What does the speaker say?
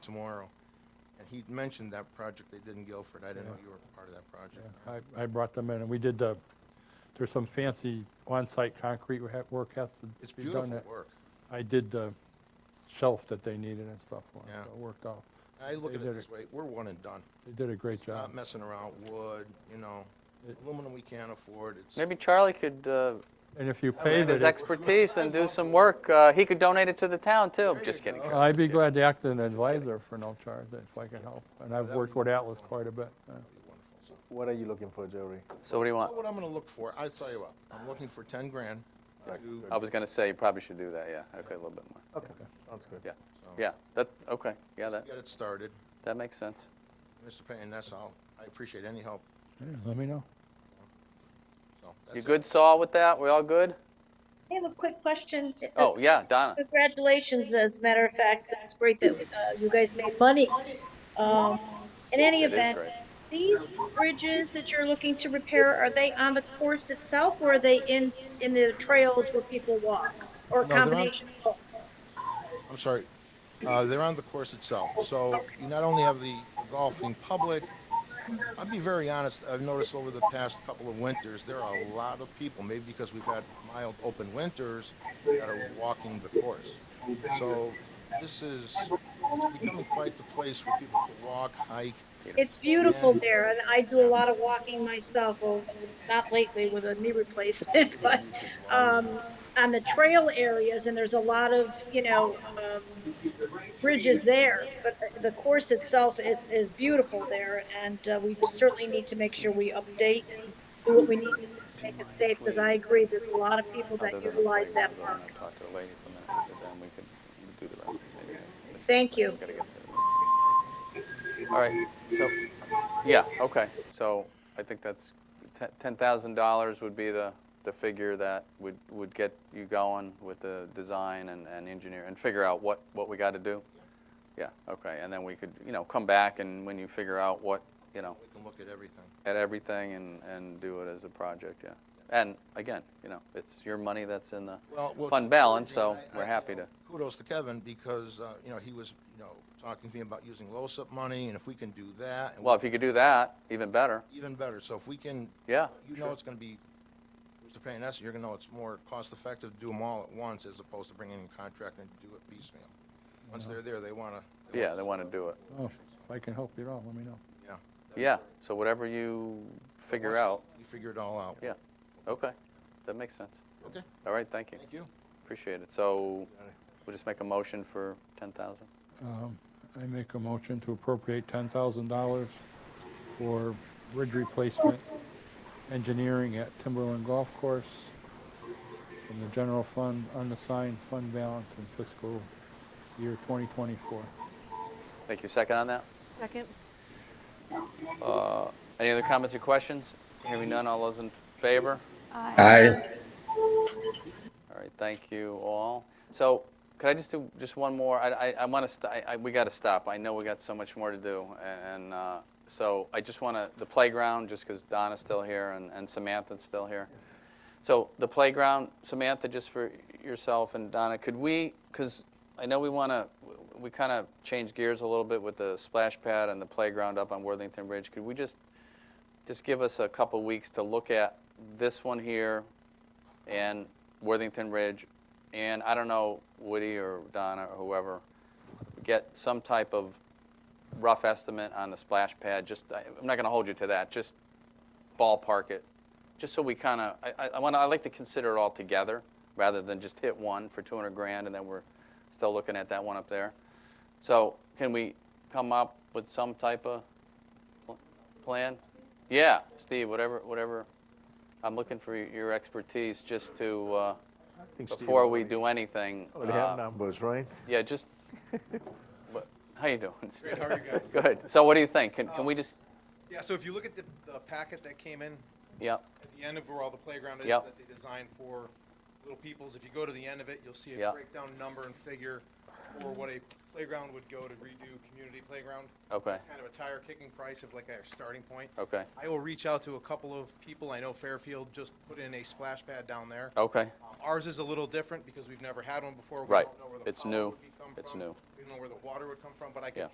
tomorrow. And he mentioned that project they did in Guilford. I didn't know Yeah. you were part of that project. I, I brought them in and we did the, there's some fancy on-site concrete we had- work has to be done. It's beautiful that- work. I did the shelf that they needed and stuff. for 'em, Yeah. so It worked out. I look They at it did this way, we're one and done. They did a great Not job. messing around wood, you know, It- aluminum we can't afford, it's, Maybe Charlie could uh, And if you I paid mean, give it, his it- expertise and do some work. Uh, He could donate it to the town, too. There I'm just you kidding. go. Charlie. I'd be Just glad to act as an advisor for no charge if I can help. And I've That'd worked be with Atlas wonderful. quite a bit. yeah. wonderful. So, What are you looking for, Jerry? kidding. So what do you want? What I'm gonna look for, I tell you what, I'm looking for ten grand. Right, to- good. I was going to say, you probably should do that, yeah. Okay, a little bit more. Okay, sounds good. so Yeah, that, okay, yeah, that, Get it started. that makes sense. Mr. Payne, that's all. I appreciate any help, Yeah, Let me know. so. You that's it. good, Saul, with that? We all good? I have a quick question. Oh, yeah, Donna. Congratulations, as a matter of fact, that's great that uh, you guys made money. Um, In any It is event, great. these bridges that you're looking to repair, are they on the course itself or are they in, in the trails where people walk? Or a No, they're on- combination? of both? I'm sorry, uh, they're on the course itself. So you not only have the golfing public, I'll be very honest, I've noticed over the past couple of winters, there are a lot of people, maybe because we've had mild open winters, that are walking the course. So this is, it's becoming quite the place for people to walk, hike. It's beautiful there and I do a lot of walking myself, well, not lately with a knee replacement, but um, on the trail areas, and there's a lot of, you know, um, bridges there, but the- the course itself is, is beautiful there, and uh, we certainly need to make sure we update and do what we need to make it safe, because I agree, there's a lot of people Other that than the utilize that playground, park. I talked to the lady for a minute, but then we could do the rest. Maybe that's- Thank you. Gotta get there. All right, so, yeah, okay, so I think that's, ten- $10,000 would be the, the figure that would, would get you going with the design and, and engineer, and figure out what, what we gotta do? Yeah, okay, and then we could, you know, come back and when you figure out what, you know, We can look at everything. at everything and, and do it as a project, yeah. And again, you know, it's your money that's in the Well, well, fund it's balance, so encouraging. I- we're I- happy to, Kudos to Kevin because, uh, you know, he was, you know, talking to me about using LoSiP money and if we can do that. and well, if you could do that, even better, Even better. So if we can yeah. you know sure. it's gonna be, Mr. Payne, that's, you're gonna know it's more cost-effective to do them all at once as opposed to bringing in a contract and do it piecemeal. Once they're there, they wanna. Yeah, they want to do it, Oh, If I can help you at all, let me know. yeah, so whatever you figure out, You figure it all out. Yeah. okay, that makes sense. Okay. All right, thank you, Thank you. appreciate it, so we'll just make a motion for 10,000? Um, I make a motion to appropriate ten thousand dollars for bridge replacement engineering at Timberland Golf Course from the general fund, unassigned fund balance in fiscal year twenty twenty-four. Thank you, second on that? Second. Uh, Any other comments or questions? Hearing none, all those in favor? Aye. All right, thank you all. So could I just do just one more? I, I, I want to, st- I, I- we got to stop. I know we got so much more to do. And uh, so I just want to, the playground, just because Donna's still here and, and Samantha's still here. So the playground, Samantha, just for yourself and Donna, could we, because I know we want to, we kind of changed gears a little bit with the splash pad and the playground up on Worthington Ridge. Could we just, just give us a couple weeks to look at this one here, and Worthington Ridge, and I don't know, Woody or Donna or whoever, get some type of rough estimate on the splash pad, just, I- I'm not gonna hold you to that, just ballpark it, just so we kinda, I- I, I wanna, I like to consider it all together, rather than just hit one for two hundred grand, and then we're still looking at that one up there. So, can we come up with some type of pl- plan? Yeah, Steve, whatever, whatever, I'm looking for your expertise, just to, uh, I think Steve before we already- do anything. Already have uh, numbers, right? Yeah, just, what- how you doing? Good, how are you Um, guys? Good. So what do you think? Can, can we just, Yeah, so if you look at the, the packet that came in yeah, at the end of where all the playground is Yep. that they designed for Little Peoples, if you go to the end of it, you'll see a Yep. breakdown number and figure for what a playground would go to redo community playground. okay, It's kind of a tire kicking price of like our starting point. okay, I will reach out to a couple of people. I know Fairfield just put in a splash pad down there. okay, Um, Ours is a little different because we've never had one before. We Right. don't know where the It's power new. would be come It's from. new. We don't know where the water would come from, but I Yeah. can